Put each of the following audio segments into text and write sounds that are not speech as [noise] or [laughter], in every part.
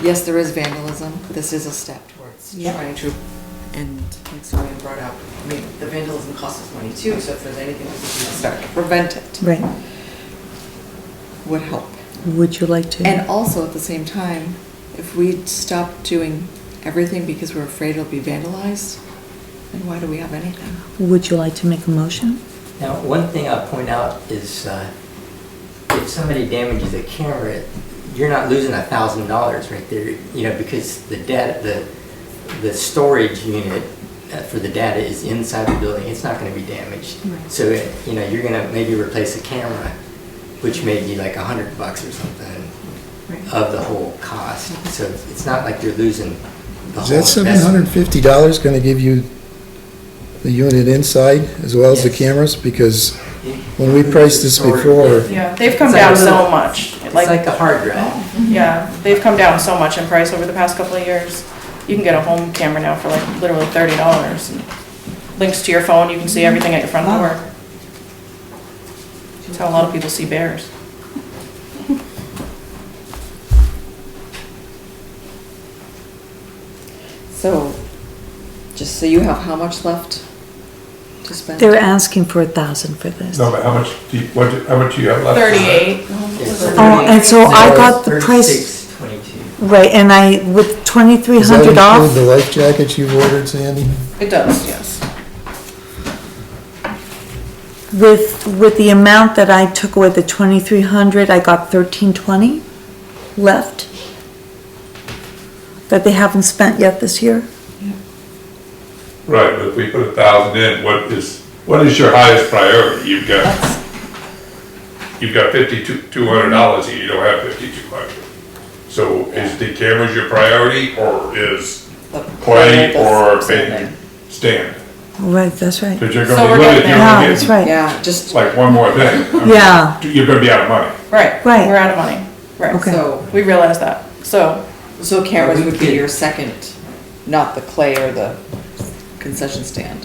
yes, there is vandalism, this is a step towards Yep. trying to, and like Sonia brought up, I mean, the vandalism costs us money too, so if there's anything we can do to start to prevent it, Right. would help. Would you like to? And also, at the same time, if we stop doing everything because we're afraid it'll be vandalized, then why do we have anything? Would you like to make a motion? Now, one thing I'll point out is uh, if somebody damages a camera, you're not losing a thousand dollars right there, you know, because the data, the, the storage unit uh, for the data is inside the building, it's not gonna be damaged. Right. So, it- you know, you're gonna maybe replace a camera, which may be like a hundred bucks or something of the whole cost. So it's not like you're losing the Is whole. that seven hundred and investment. fifty dollars gonna give you the unit inside as well as the Yes. cameras? Because when we priced this before, Yeah, they've come It's like down a little- so much. It's Like, like a hard drive. yeah, they've come down so much in price over the past couple of years. You can get a home camera now for like literally thirty dollars. Links to your phone, you can see everything at your front door. That's how a lot of people see bears. So, just so you have how much left to spend? They're asking for a thousand for this. No, but how much do you, what, do- how much do you have left? for that? Thirty-eight. It's Oh, and so I got the price, Thirty-six twenty-two. right, and I, with twenty-three does that hundred include the off, life jackets you've ordered, Sandy? It does, yes. with, with the amount that I took away, the twenty-three hundred, I got thirteen twenty left that they haven't spent yet this year. Right, but if we put a thousand in, what is, what is your highest priority? You've got, you've got fifty-two, two hundred dollars here, you don't have fifty-two hundred. So is the cameras your priority, or is play, or band, stand? Right, that's right. Because you're So gonna we're be limited, getting you're Yeah, gonna that's get, right. Yeah, just, like, one more [laughs] thing. I mean, Yeah. You're gonna be out of money. Right, Right. we're out of money. Right, Okay. so, we realize that. So, so cameras would be Okay. your second, not the clay or the concession stand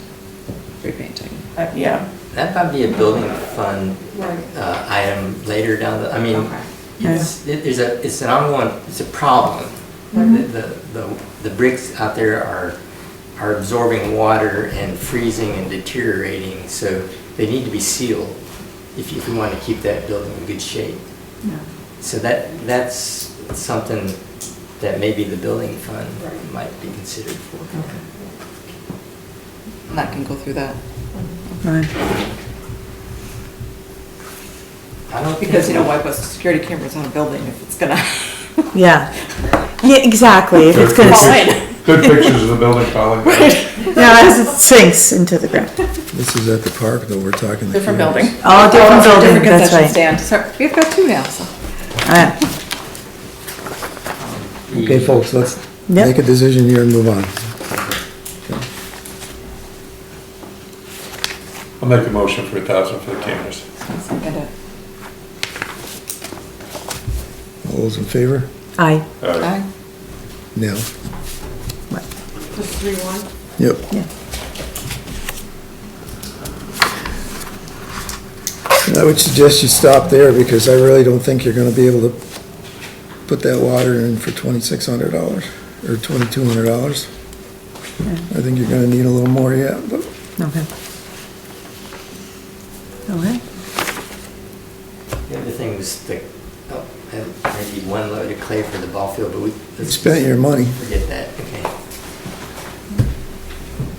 repainting. uh, yeah. That might be a building fund uh, item later down the, I mean, Okay. it's, it- there's a, it's an ongoing, it's a problem. The, the- the, the bricks out there are, are absorbing water and freezing and deteriorating, so they need to be sealed if you want to keep that building in good shape. So that, that's something that maybe the building fund might be considered for. And that can go through that, Right. I don't think- because you know, why put security cameras on a building if it's gonna? [laughs] Yeah. Yeah, exactly, if it's gonna, Good s- pictures- Good pictures of the building [laughs] falling down. [laughs] yeah, as it sinks into the ground. This is at the park though, we're talking. the Different cameras. building. All different building, that's concession right. stand. So we've got two now, so. Alright. Okay, folks, let's Yep. make a decision here and move on. I'll make a motion for a thousand for the cameras. Second it. All those in favor? Aye, Uh, Aye. No. What? Yep. Yeah. And I would suggest you stop there because I really don't think you're gonna be able to put that water in for twenty-six hundred dollars or twenty-two hundred dollars. I think you're gonna need a little more yet, but okay. Okay. The other thing was the, oh, I had maybe one load of clay for the ball field, but we. you spent your money. Forget that, okay.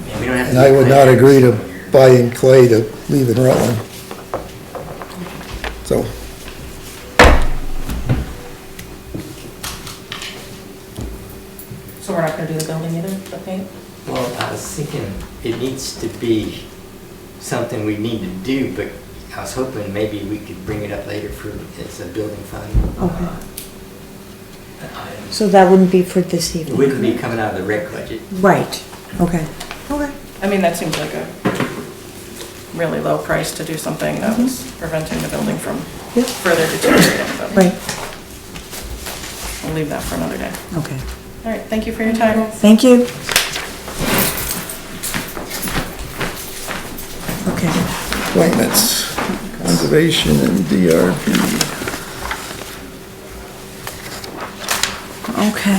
Yeah, we don't have to And I do would clay not every agree to single year. buying clay to leave in Rutland. So, So we're not gonna do the building either, the paint? Well, I was thinking, it needs to be something we need to do, but I was hoping maybe we could bring it up later for, it's a building fund. uh, Okay. item. So that wouldn't be for this It evening? wouldn't be coming out of the rec budget. Right, okay. Okay. I mean, that seems like a really low price to do something that Mm-hmm. was preventing the building from Yep. further deteriorating, but Right, we'll leave that for another day. okay. All right, thank you for your time. Thank you. Okay, appointments, conservation and DRB. okay.